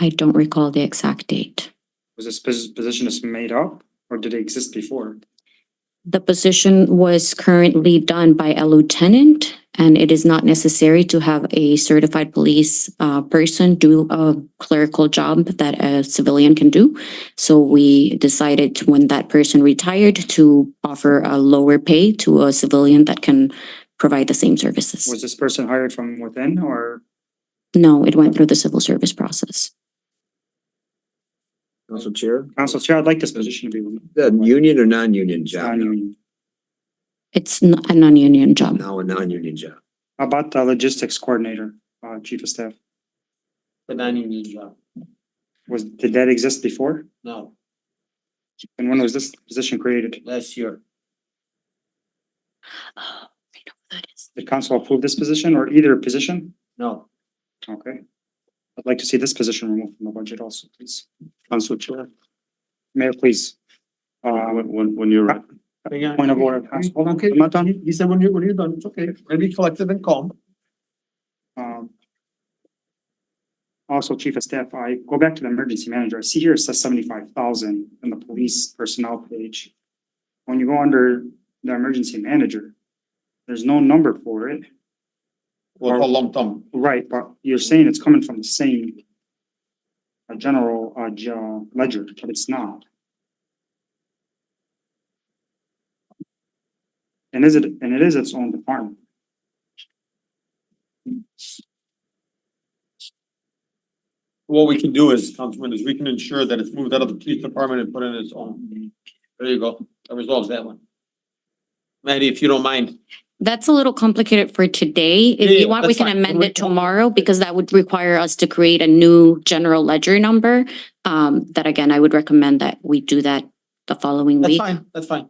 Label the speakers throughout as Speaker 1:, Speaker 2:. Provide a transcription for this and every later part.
Speaker 1: I don't recall the exact date.
Speaker 2: Was this pos- position just made up or did it exist before?
Speaker 1: The position was currently done by a lieutenant, and it is not necessary to have a certified police uh, person do a clerical job that a civilian can do. So we decided when that person retired to offer a lower pay to a civilian that can provide the same services.
Speaker 2: Was this person hired from within or?
Speaker 1: No, it went through the civil service process.
Speaker 3: Council Chair?
Speaker 2: Council Chair, I'd like this position to be. uh, removed.
Speaker 3: The union or non-union job?
Speaker 2: Non-union.
Speaker 1: It's n- a non-union job.
Speaker 3: Now a non-union job.
Speaker 2: How About the logistics coordinator, uh, chief of staff,
Speaker 4: The non-union job,
Speaker 2: was, did that exist before?
Speaker 4: no,
Speaker 2: And when was this position created?
Speaker 4: last year,
Speaker 1: Oh, I know what that is.
Speaker 2: Did council approve this position or either position?
Speaker 4: no.
Speaker 2: Okay. I'd like to see this position removed from the budget also, please. Council Chair. Mayor, please. Uh,
Speaker 5: When, when, when you're,
Speaker 2: Uh, Point of order, Council- hold on, I'm not done.
Speaker 4: You said when you're, when you're done, it's okay, maybe collective and calm.
Speaker 2: Um. Also, Chief of Staff, I go back to the emergency manager. I see here it says seventy-five thousand in the police personnel page. When you go under the emergency manager, there's no number for it.
Speaker 4: Well, a lump sum.
Speaker 2: Right, but you're saying it's coming from the same uh, general, uh, ge- ledger, but it's not. And is it, and it is its own department.
Speaker 6: What we can do is, Councilman, is we can ensure that it's moved out of the police department and put in its own. There you go. That resolves that one. Maddie, if you don't mind.
Speaker 1: That's a little complicated for today.
Speaker 6: Yeah,
Speaker 1: If
Speaker 6: yeah,
Speaker 1: you want, we
Speaker 6: that's
Speaker 1: can
Speaker 6: fine.
Speaker 1: amend
Speaker 6: We're-
Speaker 1: it tomorrow because that would require us to create a new general ledger number. Um, that again, I would recommend that we do that the following
Speaker 6: That's
Speaker 1: week.
Speaker 6: fine, that's fine.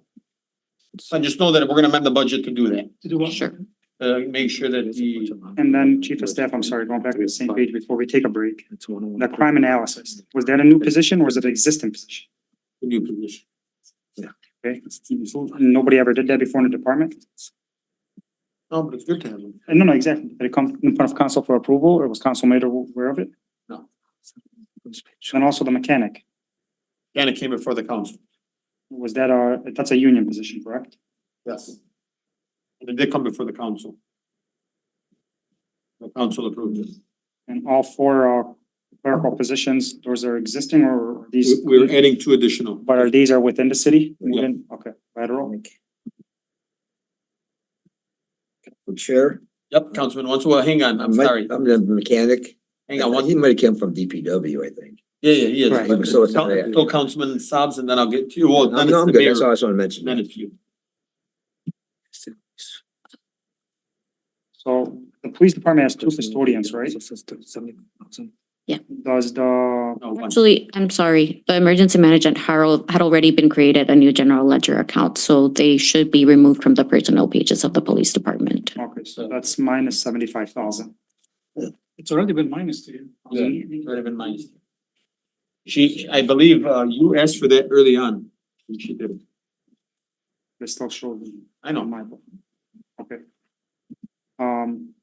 Speaker 6: So just know that we're gonna amend the budget to do that,
Speaker 1: Sure.
Speaker 6: uh, make sure that the,
Speaker 2: And then Chief of Staff, I'm sorry, going back to the same page before we take a break.
Speaker 3: It's
Speaker 6: oh
Speaker 3: one
Speaker 2: The crime analysis, was that a new position or was it an existing position?
Speaker 6: the new position.
Speaker 2: Okay, nobody ever did that before in the department?
Speaker 6: No, but it's good to have them.
Speaker 2: Uh, No, no, exactly. Did it come in front of council for approval or was council made aware of it? And also the mechanic,
Speaker 6: And it came before the council.
Speaker 2: was that a, that's a union position, correct?
Speaker 6: Yes. And it did come before the council. The council approved it.
Speaker 2: And all four uh, clerical positions, those are existing or are these?
Speaker 6: We- We're adding two additional.
Speaker 2: But are these are within the city?
Speaker 6: Yeah.
Speaker 2: Within- Okay, lateral.
Speaker 3: Chair?
Speaker 6: Yep, Councilman, once, well, hang on, I'm
Speaker 3: might-
Speaker 6: sorry,
Speaker 3: I'm the mechanic.
Speaker 6: hang on, one,
Speaker 3: He might have come from DPW, I think.
Speaker 6: Yeah, yeah, he is.
Speaker 2: Right.
Speaker 6: But
Speaker 3: So it's-
Speaker 6: Coun- Go Councilman Sabs and then I'll get to you. Well,
Speaker 3: No,
Speaker 6: then
Speaker 3: no,
Speaker 6: it's
Speaker 3: I'm
Speaker 6: the
Speaker 3: good. That's all
Speaker 6: mayor.
Speaker 3: I just wanna mention.
Speaker 6: Then it's you.
Speaker 2: So the police department has two custodians, right? Does the,
Speaker 6: No, one.
Speaker 1: Actually, I'm sorry, the emergency management Harold had already been created a new general ledger account, so they should be removed from the personnel pages of the police department.
Speaker 2: okay, so that's minus seventy-five thousand.
Speaker 4: It's already been minus to you.
Speaker 6: Yeah, it would have been mine. She, I believe, uh, you asked for that early on. and She did.
Speaker 2: They still show the-
Speaker 6: I know.
Speaker 2: on my book. Okay. Um.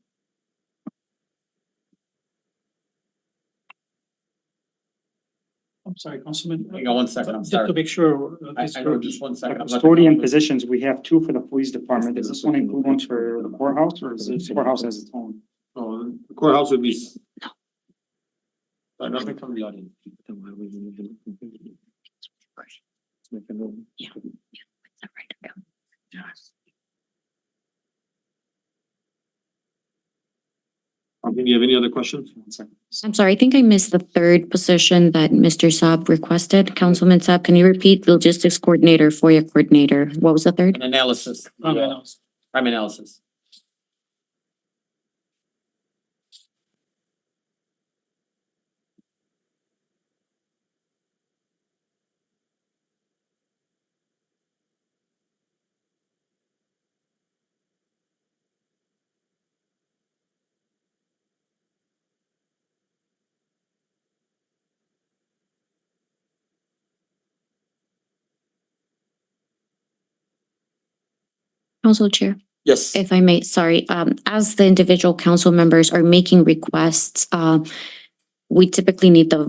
Speaker 4: I'm sorry, Councilman,
Speaker 6: Hang on one second, I'm sorry.
Speaker 4: make sure. uh,
Speaker 6: I, I know, just one second. I'm looking
Speaker 2: Custodian
Speaker 6: up.
Speaker 2: positions, we have two for the police department. Does this one include one for the courthouse or is it courthouse has its own?
Speaker 6: Oh, the Courthouse would be. Sorry, nothing from the audience. Okay, Do you have any other questions?
Speaker 2: One second.
Speaker 1: I'm sorry, I think I missed the third position that Mr. Saab requested. Councilman Saab, can you repeat logistics coordinator, FOIA coordinator? What was the third?
Speaker 6: An analysis. Yeah, Crime analysis.
Speaker 1: Council Chair.
Speaker 6: Yes.
Speaker 1: If I may, sorry, um, as the individual council members are making requests, uh, we typically need the